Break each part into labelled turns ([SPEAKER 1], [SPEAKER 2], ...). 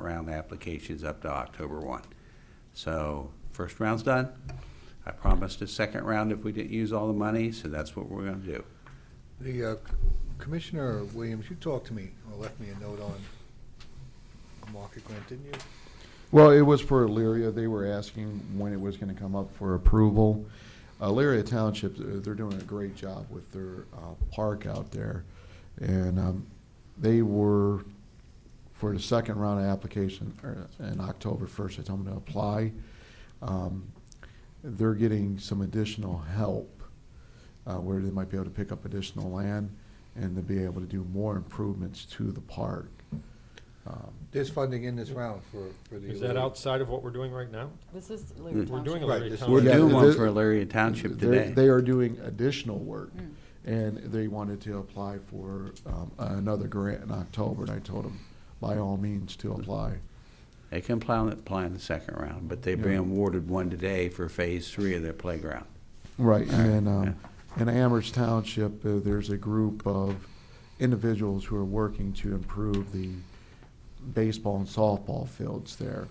[SPEAKER 1] round applications up to October 1. So first round's done. I promised a second round if we didn't use all the money, so that's what we're going to do.
[SPEAKER 2] The uh, Commissioner Williams, you talked to me, or left me a note on a market grant, didn't you?
[SPEAKER 3] Well, it was for Elyria. They were asking when it was going to come up for approval. Elyria Township, uh, they're doing a great job with their uh, park out there. And um, they were, for the second round of application, or in October 1st, I told them to apply. Um, They're getting some additional help uh, where they might be able to pick up additional land and to be able to do more improvements to the park. Um,
[SPEAKER 2] There's funding in this round for, for the.
[SPEAKER 4] Is that Mm-hmm. outside of what we're doing right now?
[SPEAKER 5] This is
[SPEAKER 1] We're
[SPEAKER 5] Leary Township.
[SPEAKER 4] doing a
[SPEAKER 2] Right,
[SPEAKER 4] Larry
[SPEAKER 2] this-
[SPEAKER 4] Township.
[SPEAKER 1] We're
[SPEAKER 3] Yeah,
[SPEAKER 1] doing one
[SPEAKER 3] the-
[SPEAKER 1] for Elaria Township
[SPEAKER 3] They're-
[SPEAKER 1] today.
[SPEAKER 3] They are doing additional work,
[SPEAKER 5] Mm.
[SPEAKER 3] and they wanted to apply for um, another grant in October, and I told them, by all means, to apply.
[SPEAKER 1] They can plan, plan the second round, but they've been
[SPEAKER 3] Yeah.
[SPEAKER 1] awarded one today for Phase Three of their playground.
[SPEAKER 3] Right, and then,
[SPEAKER 1] Yeah.
[SPEAKER 3] um, in Amherst Township, uh, there's a group of individuals who are working to improve the baseball and softball fields there.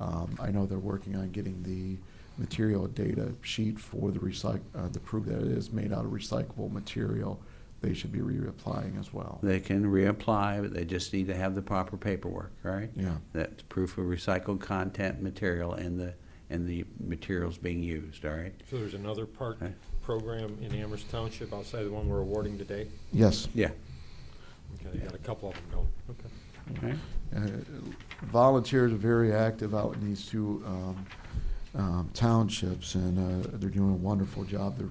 [SPEAKER 3] Um, I know they're working on getting the material data sheet for the recyc, uh, to prove that it is made out of recyclable material. They should be reapplying as well.
[SPEAKER 1] They can reapply, but they just need to have the proper paperwork, right?
[SPEAKER 3] Yeah.
[SPEAKER 1] That's proof of recycled content material and the, and the materials being used, all right?
[SPEAKER 4] So there's another park
[SPEAKER 1] Okay.
[SPEAKER 4] program in Amherst Township outside the one we're awarding today?
[SPEAKER 3] Yes.
[SPEAKER 1] Yeah.
[SPEAKER 4] Okay, they got a couple of them going. Okay.
[SPEAKER 1] Okay.
[SPEAKER 3] Uh, Volunteers are very active out in these two um, um, townships, and uh, they're doing a wonderful job. They're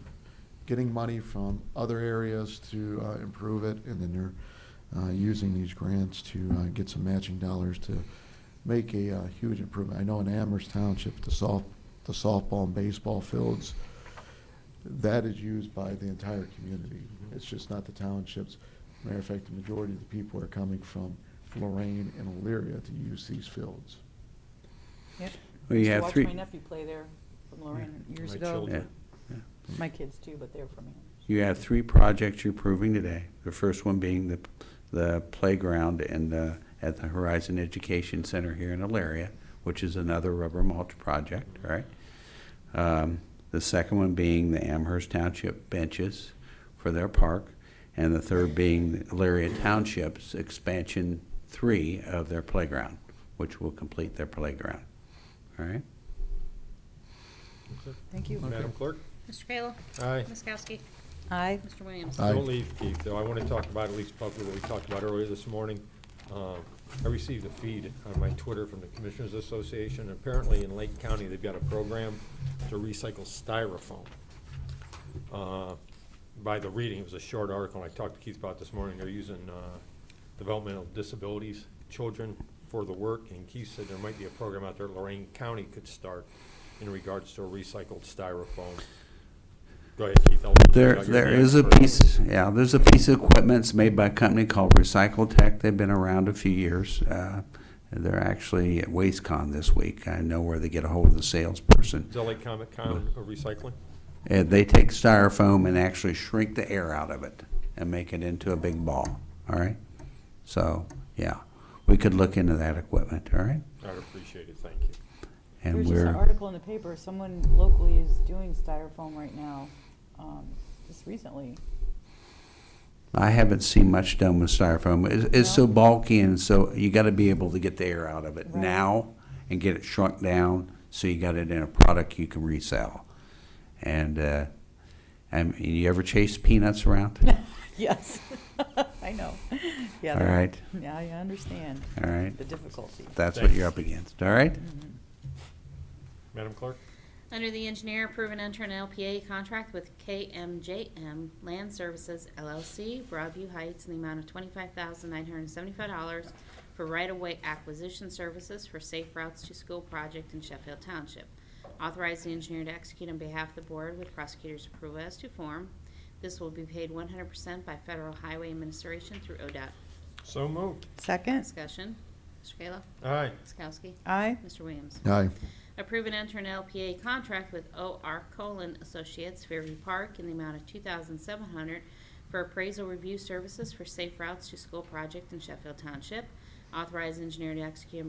[SPEAKER 3] getting money from other areas to uh, improve it, and then they're uh, using these grants to uh, get some matching dollars to make a uh, huge improvement. I know in Amherst Township, the soft, the softball and baseball fields, that is used by the entire community. It's just not the townships. Matter of fact, the majority of the people are coming from Lorraine and Elyria to use these fields.
[SPEAKER 5] Yep.
[SPEAKER 1] Well, you
[SPEAKER 5] Used to
[SPEAKER 1] have three- Mm.
[SPEAKER 5] Watch my nephew play there from Lorraine years
[SPEAKER 4] My
[SPEAKER 5] ago.
[SPEAKER 4] children.
[SPEAKER 1] Yeah.
[SPEAKER 5] My kids too, but they're from here.
[SPEAKER 1] You have three projects you're approving today. The first one being the, the playground and the, at the Horizon Education Center here in Elaria, which is another rubber mulch project, right? Um, The second one being the Amherst Township benches for their park, and the third being the Elaria Township's expansion three of their playground, which will complete their playground, all right?
[SPEAKER 5] Thank you.
[SPEAKER 4] Madam Clerk?
[SPEAKER 6] Mr. Kayla.
[SPEAKER 4] Aye.
[SPEAKER 6] Ms. Kowski.
[SPEAKER 5] Aye.
[SPEAKER 6] Mr. Williams.
[SPEAKER 3] Aye.
[SPEAKER 4] Don't leave, Keith, though. I want to talk about, at least publicly, what we talked about earlier this morning. Uh, I received a feed on my Twitter from the Commissioners Association. Apparently, in Lake County, they've got a program to recycle styrofoam. Uh, By the reading, it was a short article, and I talked to Keith about it this morning. They're using uh, developmental disabilities, children for the work, and Keith said there might be a program out there Lorraine County could start in regards to recycled styrofoam. Go ahead, Keith. I'll-
[SPEAKER 1] There,
[SPEAKER 4] I'll-
[SPEAKER 1] there is a piece, yeah, there's a piece of equipment that's made by a company called Recycle Tech. They've been around a few years. Uh, They're actually at WasteCon this week. I know where they get a hold of the salesperson.
[SPEAKER 4] Is that like Comic Con of recycling?
[SPEAKER 1] And they take styrofoam and actually shrink the air out of it and make it into a big ball, all right? So, yeah, we could look into that equipment, all right?
[SPEAKER 4] I'd appreciate it, thank you.
[SPEAKER 1] And
[SPEAKER 5] There's just an
[SPEAKER 1] we're,
[SPEAKER 5] article in the paper, someone locally is doing styrofoam right now, um, just recently.
[SPEAKER 1] I haven't seen much done with styrofoam. It's, it's so bulky and so, you gotta be able to get the air out of it
[SPEAKER 5] Right.
[SPEAKER 1] now and get it shrunk down, so you got it in a product you can resell. And, uh, and you ever chase peanuts around?
[SPEAKER 5] Yes, I know. Yeah.
[SPEAKER 1] All
[SPEAKER 5] they're-
[SPEAKER 1] right.
[SPEAKER 5] Yeah, I understand
[SPEAKER 1] All right,
[SPEAKER 5] the difficulty.
[SPEAKER 1] that's what you're up against, all right?
[SPEAKER 5] Mhm.
[SPEAKER 4] Madam Clerk?
[SPEAKER 6] Under the engineer, approve and enter an LPA contract with KMJM Land Services LLC, Broadview Heights, in the amount of twenty-five thousand nine hundred and seventy-five dollars for right-of-way acquisition services for Safe Routes to School project in Sheffield Township. Authorize the engineer to execute on behalf of the board with prosecutor's approval as to form. This will be paid one hundred percent by Federal Highway Administration through ODOT.
[SPEAKER 4] So moved.
[SPEAKER 5] Second,
[SPEAKER 6] Discussion. Mr. Kayla.
[SPEAKER 4] Aye.
[SPEAKER 6] Ms. Kowski.
[SPEAKER 5] aye,
[SPEAKER 6] Mr. Williams.
[SPEAKER 3] Aye.
[SPEAKER 6] Approve and enter an LPA contract with O.R. Colon Associates, Fairview Park, in the amount of $2,700 for appraisal review services for Safe Routes to School project in Sheffield Township. Authorize engineer to execute on